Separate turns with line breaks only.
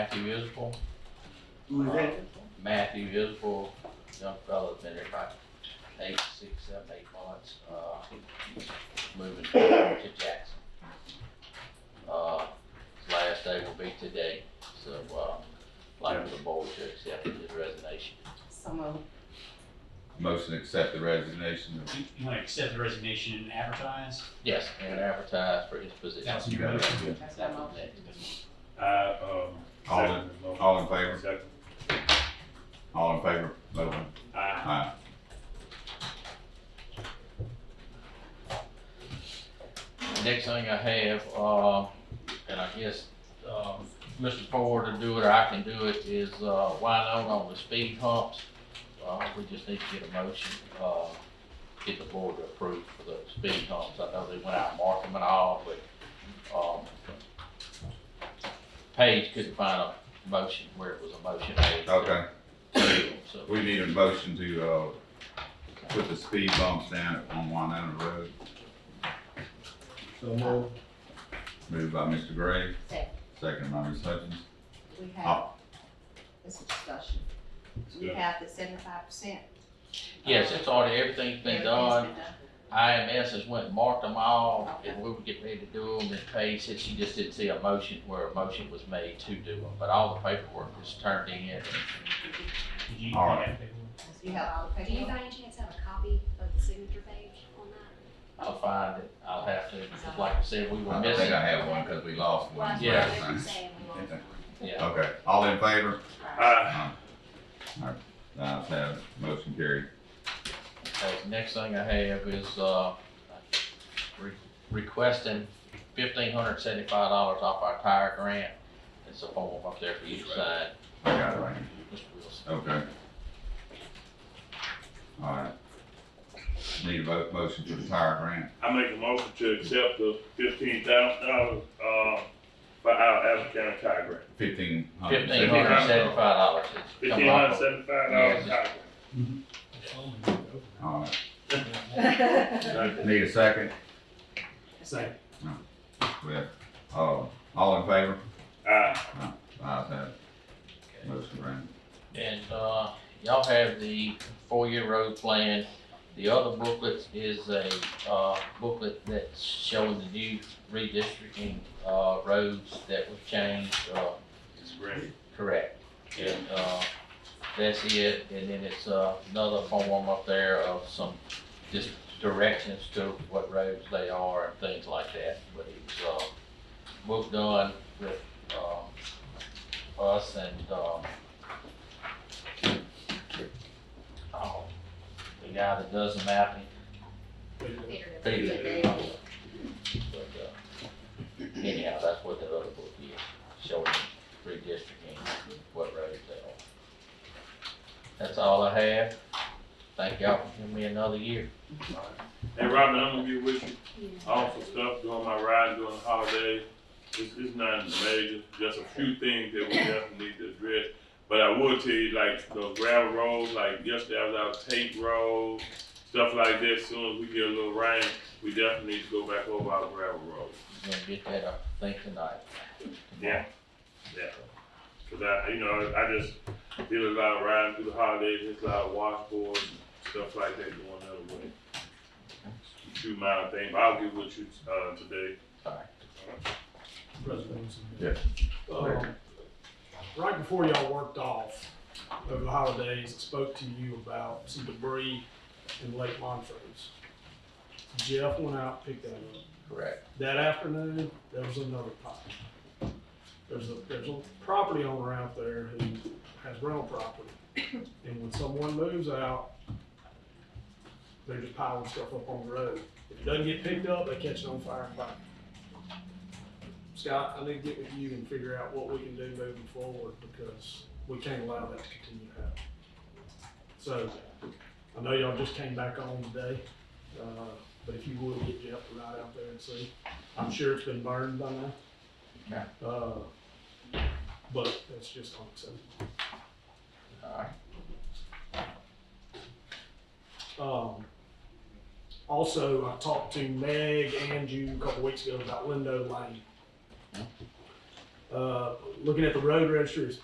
Matthew Isbell,
Who is that?
Matthew Isbell, young fella's been there about eight, six, seven, eight months, uh, moving to Jackson. Uh, his last day will be today, so, uh, like for the board to accept his resignation.
So moved.
Motion to accept the resignation of
You you want to accept the resignation and advertise?
Yes, and advertise for his position.
That's your motion.
That's my
That was
motion.
it.
I, um.
All in-
second the motion.
all in favor?
Second.
all in favor, vote aye.
Aye.
Aye.
Next thing I have, uh, and I guess, um, Mr. Ford to do it, or I can do it, is, uh, why not on the speed humps? Uh, we just need to get a motion, uh, get the board to approve for the speed humps. I know they went out and marked them and all, but, um, Paige couldn't find a motion where it was a motion. made to-
Okay,
to do them, So,
we need a motion to, uh, put the speed bumps down on Winona Road.
So move.
Moved by Mr. Gray,
Second,
second by Ms. Hutchins.
we have, this is discussion. We
Good.
have the seventy-five percent.
yes, it's already, everything's been done. IMS has went and marked them all,
Okay.
and we were getting ready to do them, and Paige said she just didn't see a motion where a motion was made to do them, but all the paperwork was turned in.
Did you- you
All right.
have paperwork?
You have all the
Do you
paperwork.
by any chance have a copy of the signature page on that?
I'll find it, I'll have to, because like I said, we were
I think
missing.
I have one because we lost one.
Well,
Yeah.
I was saying we want one.
Yeah,
Okay, all in favor?
Aye.
The ayes have, it. motion carried.
okay, the next thing I have is, uh, re- requesting fifteen hundred seventy-five dollars off our tire grant. It's a form up there for you to sign,
I got it right here.
Mr. Wilson.
Okay. All right. Need a vote, motion to retire grant.
I make a motion to accept the fifteen thousand dollars, uh, for our Allen County tire grant.
Fifteen hundred.
Fifteen hundred seventy-five dollars.
Fifteen hundred seventy-five dollars tire
All right,
grant.
need a second?
Second.
Well, uh, all in favor?
Aye.
The ayes have, it. motion granted.
And, uh, y'all have the four-year road plan. The other booklet is a, uh, booklet that's showing the new redistricting, uh, roads that were changed, uh,
It's great.
correct. And, uh, that's it. And then it's, uh, another form up there of some just directions to what roads they are and things like that. But it's, uh, both done with, um, us and, um, oh, the guy that does the mapping.
Peter.
Peter.
Peter.
But, uh, Anyhow, that's what the other book is, showing redistricting, what roads they are. That's all I have. Thank y'all for giving me another year.
Hey, Robin, I'm gonna be with you on some stuff during my ride during the holiday. It's, it's nothing major, just a few things that we definitely need to address. But I will tell you, like, the gravel roads, like yesterday I was out Tate Road, stuff like that. Soon as we get a little rain, we definitely need to go back over our gravel roads.
Gonna get that, I think, tonight.
Yeah. Cause I, you know, I just did a lot of riding through the holidays, just a lot of washboards, and stuff like that going the other way. Two mile thing, but I'll get with you, uh, today.
Alright.
President Wilson.
Yes.
Um, Right before y'all worked off over the holidays, I spoke to you about some debris in Lake Montrose. Jeff went out, picked that up.
Correct.
That afternoon, there was another pile. There's a, there's a property owner out there who has rental property. And when someone moves out, they're just piling stuff up on the road. If it doesn't get picked up, they catch it on fire and burn. Scott, I need to get with you and figure out what we can do moving forward because we can't allow that to continue to happen. So I know y'all just came back on today, uh, but if you would get Jeff to ride out there and see. I'm sure it's been burned by now.
Yeah.
Uh, but that's just unacceptable.
Alright.
Um, also, I talked to Meg and you a couple weeks ago about Lindo Lane. Uh, looking at the road registry, it's